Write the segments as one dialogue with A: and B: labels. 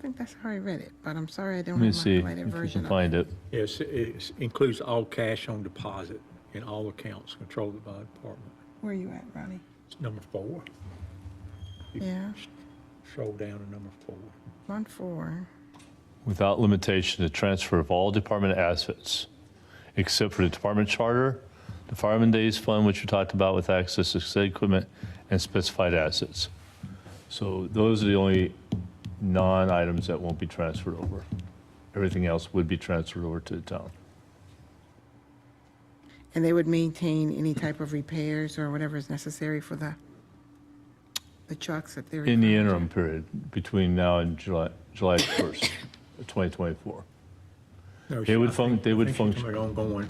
A: think that's how I read it, but I'm sorry I don't
B: Let me
A: have my
B: see
A: highlighted
B: if we
A: version
B: can
A: of it.
B: find it.
C: Yes, it includes all cash on deposit in all accounts controlled by the department.
A: Where you at, Ronnie?
C: It's number four. You
A: Yeah.
C: s- Scroll down to number four.
A: One four.
B: Without limitation, the transfer of all department assets, except for the department charter, the fireman days fund, which we talked about with access to said equipment, and specified assets. So those are the only non-items that won't be transferred over. Everything else would be transferred over to the town.
A: And they would maintain any type of repairs or whatever is necessary for the, the trucks that they're.
B: In the
A: referring to.
B: interim period, between now and July, July 1st, of 2024.
C: No,
B: They would
C: I think-
B: func- they would
C: I think she's
B: function-
C: talking about Ongoing,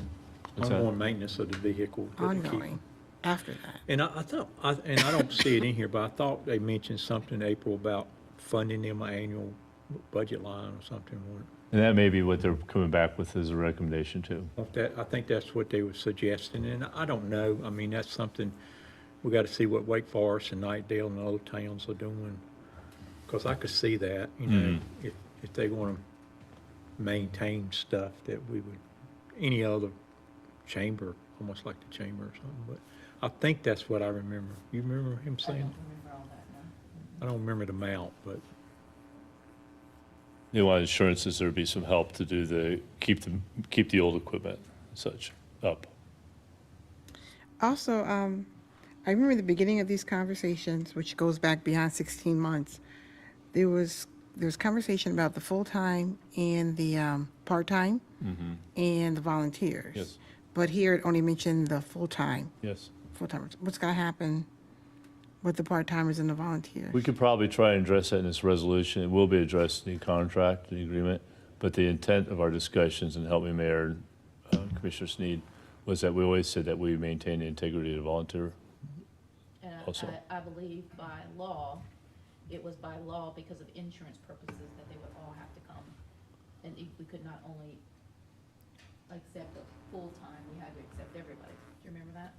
B: What's that?
C: ongoing maintenance of the vehicle. that they keep.
A: Ongoing, after that.
C: And I, I thought, I, and I don't see it in here, but I thought they mentioned something in April about funding them an annual budget line or something.
B: And that may be what they're coming back with as a recommendation too.
C: Want that, I think that's what they were suggesting, and I don't know, I mean, that's something, we gotta see what Wake Forest and Nightdale and other towns are doing. Cause I could see that, you know, if, if they wanna maintain stuff that we would, any other chamber, almost like the chamber or something, but I think that's what I remember. You remember him saying? I don't remember the amount, but
B: They want assurances there'd be some help to do the, keep the, keep the old equipment and such up.
A: Also, um, I remember the beginning of these conversations, which goes back beyond sixteen months. There was, there was conversation about the full-time and the, um, part-time and the volunteers.
B: Mm-hmm. Yes.
A: But here it only mentioned the full-time,
B: Yes.
A: full-timers. What's gonna happen with the part-timers and the volunteers?
B: We could probably try and address that in this resolution. It will be addressed in the contract, the agreement. But the intent of our discussions, and help me, Mayor, uh, Commissioner Sneed, was that we always said that we maintain the integrity of the volunteer.
D: And I-
B: Also.
D: I, I believe by law, it was by law because of insurance purposes that they would all have to come. And if we could not only accept a full-time, we had to accept everybody. Do you remember that?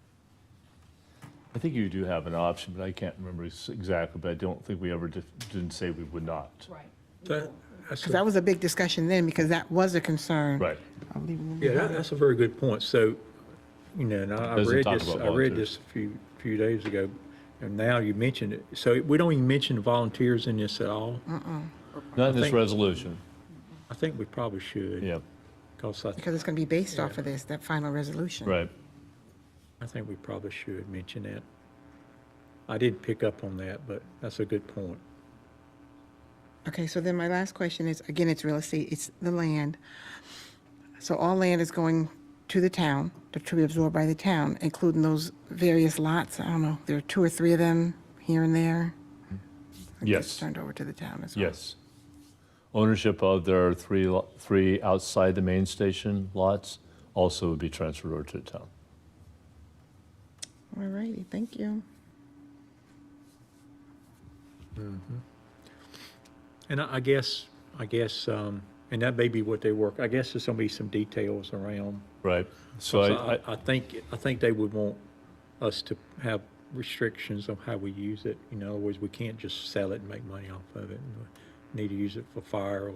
B: I think you do have an option, but I can't remember s- exactly, but I don't think we ever dif- didn't say we would not.
D: Right.
C: that, that's.
A: Because that was a big discussion then, because that was a concern.
B: Right.
A: I'll leave it
C: Yeah, that, that's a very good point. So, you know, and I I
B: Doesn't
C: read
B: talk
C: this,
B: about
C: I read
B: volunteers.
C: this a few, few days ago, and now you mentioned it. So we don't even mention volunteers in this at all.
B: Not in this
C: think-
B: resolution.
C: I think we probably should.
B: Yeah,
C: Because I,
A: Because it's going to be based off of this, that final resolution.
B: right.
C: I think we probably should mention that. I didn't pick up on that, but that's a good point.
A: Okay, so then my last question is, again, it's real estate, it's the land. So all land is going to the town, to be absorbed by the town, including those various lots. I don't know, there are two or three of them here and there. It gets
B: Yes.
A: Turned over to the town as well.
B: Yes. Ownership of, there are three, lo- three outside the main station lots also would be transferred over to the town.
A: All righty, thank you.
C: And I, I guess, I guess, um, and that may be what they work, I guess there's gonna be some details around
B: Right. So
C: So
B: I, I,
C: I, I think, I think they would want us to have restrictions on how we use it. In other words, we can't just sell it and make money off of it. We Need to use it for fire or,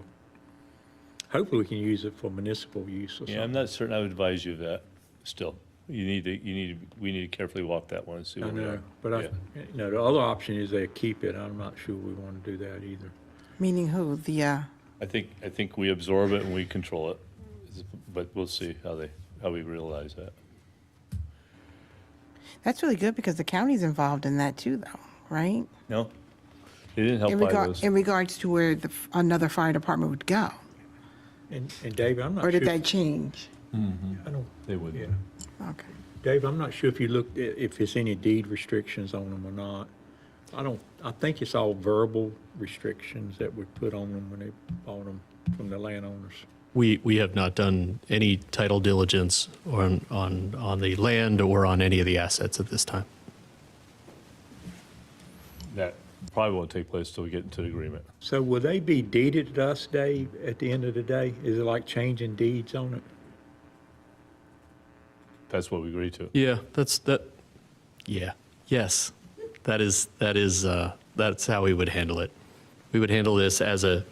C: hopefully we can use it for municipal use or
B: yeah, I'm
C: something.
B: not certain I would advise you of that still. You need to, you need, to we need to carefully walk that one and see
C: I
B: where we
C: know,
B: are.
C: but I,
B: Yeah.
C: you know, the other option is they keep it. I'm not sure we want to do that either.
A: Meaning who? The, uh,
B: I think, I think we absorb it and we control it, but we'll see how they, how we realize that.
A: that's really good because the county's involved in that too, though, right?
B: No? They didn't help
A: In
B: by
A: regard,
B: those.
A: in regards to where the, f- another fire department would go,
C: And, and David, I'm not
A: or
C: sure.
A: did that change?
C: I don't,
B: They wouldn't.
C: yeah.
A: Okay.
C: Dave, I'm not sure if you looked, at- if there's any deed restrictions on them or not. I don't, I think it's all verbal restrictions that we put on them when they bought them from the landowners.
E: We, we have not done any title diligence on, on, on the land or on any of the assets at this time.
B: That probably won't take place till we get into the agreement.
C: So will they be deeded to us, Dave, at the end of the day? Is it like changing deeds on it?
B: That's what we agreed to.
E: Yeah, that's, that, yeah, yes. That is, that is, uh, that's how we would handle it. We would handle this as a,